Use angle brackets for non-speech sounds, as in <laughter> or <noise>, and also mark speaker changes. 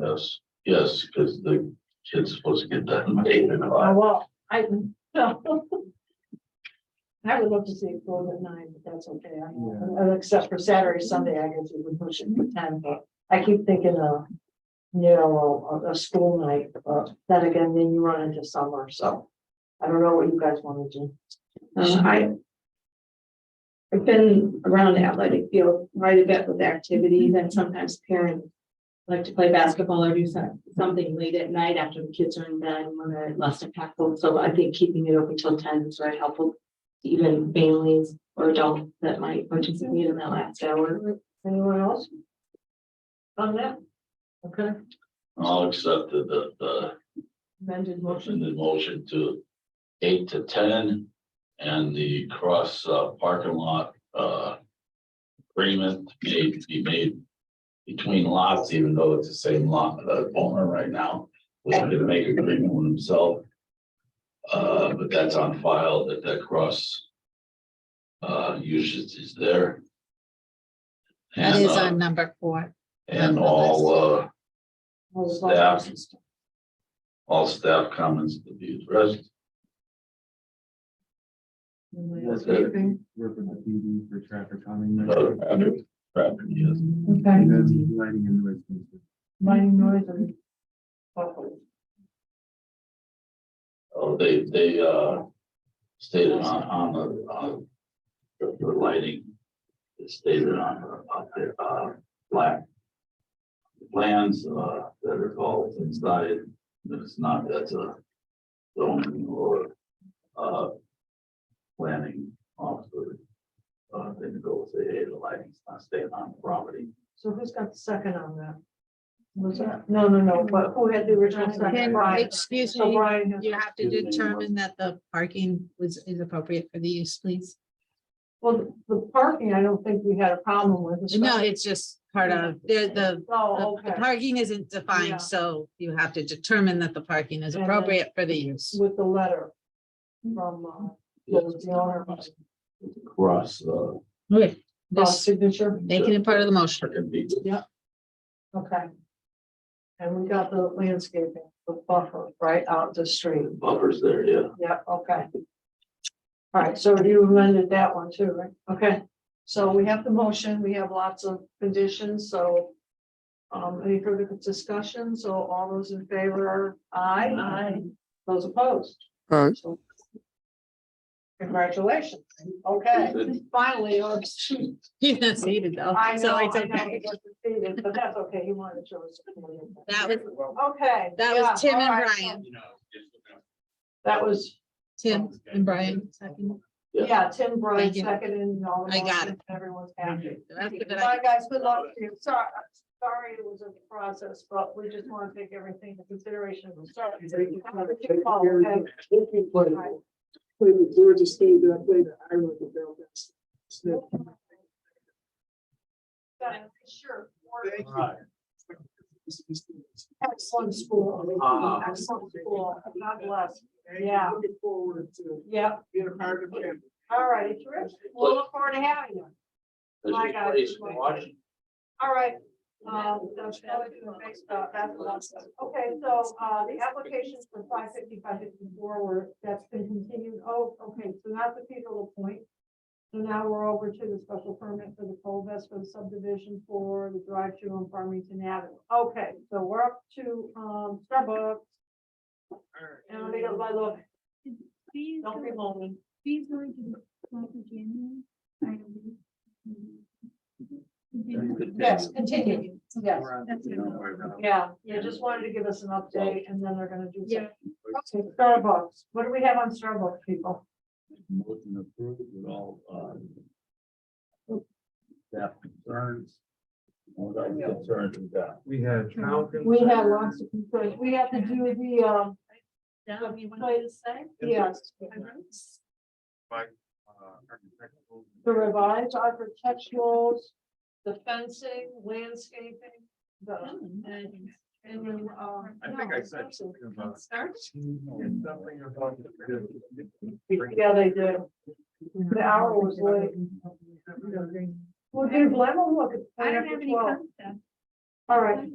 Speaker 1: Yes, yes, because the kid's supposed to get done by eight and a
Speaker 2: Oh,
Speaker 1: half.
Speaker 2: well, I, <laughs> no. I would love to see it go to nine, but that's okay. I- uh, Except for Saturday, Sunday, I guess we would push it to ten, but I keep thinking of, you know, a, a school night, but then again, then you run into summer, so. I don't know what you guys want to do.
Speaker 3: Uh, I. I've been around the athletic field quite a bit with activities and sometimes parents. Like to play basketball or do some, something late at night after the kids are in bed when they're less impactful, so I think keeping it open till ten is very helpful. to Even families or adults that might participate in that last hour.
Speaker 2: Anyone else? On that? Okay,
Speaker 1: <laughs> I'll accept uh, the, the, the
Speaker 2: amended motion.
Speaker 1: motion, the motion to eight to ten and the cross uh, parking lot, uh, agreement made to be made between lots, even though it's the same lot, the owner right now was gonna make agreement with himself. Uh, but that's on file that that cross uh, usage is there.
Speaker 4: That
Speaker 1: And,
Speaker 4: is
Speaker 1: uh,
Speaker 4: on number four.
Speaker 1: And all, uh,
Speaker 2: All those
Speaker 1: Staff.
Speaker 2: votes.
Speaker 1: all staff comments to be addressed.
Speaker 2: Anyone else?
Speaker 5: That's
Speaker 1: it.
Speaker 5: Work with the PD for traffic calming.
Speaker 1: Uh, traffic, traffic, yes.
Speaker 5: And
Speaker 2: Okay.
Speaker 5: then lighting and noise. pollution.
Speaker 2: Mining noise and. buffalo.
Speaker 1: Oh, they, they, uh, stated on, on the, on the the lighting, it stated on, the- on the, uh, black plans, uh, that are called inside, that it's not, that's a zoning or, uh, planning officer. Uh, they can go say, hey, the lighting's not staying on the property.
Speaker 2: So who's got the second on that? Was that, no, no, no, but who had the original second?
Speaker 4: And
Speaker 2: Brian.
Speaker 4: excuse
Speaker 2: So
Speaker 4: me,
Speaker 2: Brian, has-
Speaker 4: you have to determine that the parking was, is appropriate for the use, please.
Speaker 2: well, the parking, I don't think we had a problem with.
Speaker 4: No,
Speaker 2: especially-
Speaker 4: it's just part of, the, the,
Speaker 2: Oh,
Speaker 4: the the
Speaker 2: okay,
Speaker 4: parking isn't
Speaker 2: Yeah.
Speaker 4: defined, so you have to determine that the parking is
Speaker 2: And then-
Speaker 4: appropriate for the use.
Speaker 2: with the letter from, uh, the owner,
Speaker 1: Cross, uh,
Speaker 4: Okay.
Speaker 2: uh,
Speaker 4: Just
Speaker 2: signature,
Speaker 4: making it part of the motion. <laughs>
Speaker 1: can be
Speaker 2: okay. And we got the landscaping, the buffer right out the street,
Speaker 1: buffers there, yeah.
Speaker 2: yeah, okay. All right, so you amended that one too, right? Okay, so we have the motion, we have lots of conditions, so. Um, any further discussion? So all those in favor, are aye?
Speaker 1: Aye.
Speaker 2: Those opposed?
Speaker 6: Aye.
Speaker 2: So- Congratulations, okay, finally, or-
Speaker 4: You can see it though.
Speaker 2: I know,
Speaker 4: So
Speaker 2: I
Speaker 4: it's
Speaker 2: know,
Speaker 4: okay.
Speaker 2: it was defeated, but that's okay, he wanted to show us.
Speaker 4: That
Speaker 2: Okay.
Speaker 4: That
Speaker 2: yeah,
Speaker 4: was Tim
Speaker 2: all
Speaker 4: and
Speaker 2: right, so
Speaker 4: Brian,
Speaker 2: That was,
Speaker 4: Tim and Brian. second.
Speaker 1: Yeah.
Speaker 2: yeah, Tim, Brian,
Speaker 4: Thank you.
Speaker 2: second, and all. the
Speaker 4: I got
Speaker 2: motions, Everyone's happy.
Speaker 4: The rest of it, I-
Speaker 2: Bye, guys, good luck to you. Sorry, I'm sorry it was a process, but we just want to take everything into consideration. We're sorry. Have a good call, okay? All
Speaker 7: Georgia State that I played at Ireland with Bill Best.
Speaker 2: right. Sure.
Speaker 7: Thank you.
Speaker 2: Excellent school, excellent school. God bless. Yeah.
Speaker 7: Looking forward to
Speaker 2: Yep,
Speaker 7: being a part of the family.
Speaker 2: all right, terrific. We'll look forward to having you. My God. All right. Um, that's another thing that makes, uh, that's a lot of stuff. Okay, so, uh, the applications for five fifty, five fifty-four were, that's been continued. Oh, okay, so that's the Peterle Point. So now we're over to the special permit for the coal vest for the subdivision for the drive-through on Farmington Avenue. Okay, so we're up to, um, Starbucks. And let me go by look,
Speaker 8: Please,
Speaker 2: don't be
Speaker 8: go-
Speaker 2: lonely.
Speaker 8: please go into like the January. I don't know. Continue.
Speaker 2: Yes, continue. Yes,
Speaker 5: We're on-
Speaker 8: That's
Speaker 5: we don't worry about it.
Speaker 2: yeah, they just wanted to give us an update and then they're gonna do.
Speaker 8: Yeah.
Speaker 2: Okay, Starbucks, what do we have on Starbucks, people?
Speaker 1: Motion approved with all, uh, staff concerns. All that concerns we got.
Speaker 5: We uh, had. trial
Speaker 2: We have
Speaker 5: concerns.
Speaker 2: lots of concerns. We have to do the, um,
Speaker 3: Now, you wanted to say?
Speaker 2: yes,
Speaker 5: Uh, architectural-
Speaker 2: the revised architecturals, the fencing, landscaping, the, and, and then, um.
Speaker 5: I think I said something about. And Something about.
Speaker 2: Yeah, they did. The hour was late. Well, dude, let me look. at
Speaker 8: I don't have any
Speaker 2: Well,
Speaker 8: concept.
Speaker 2: All right.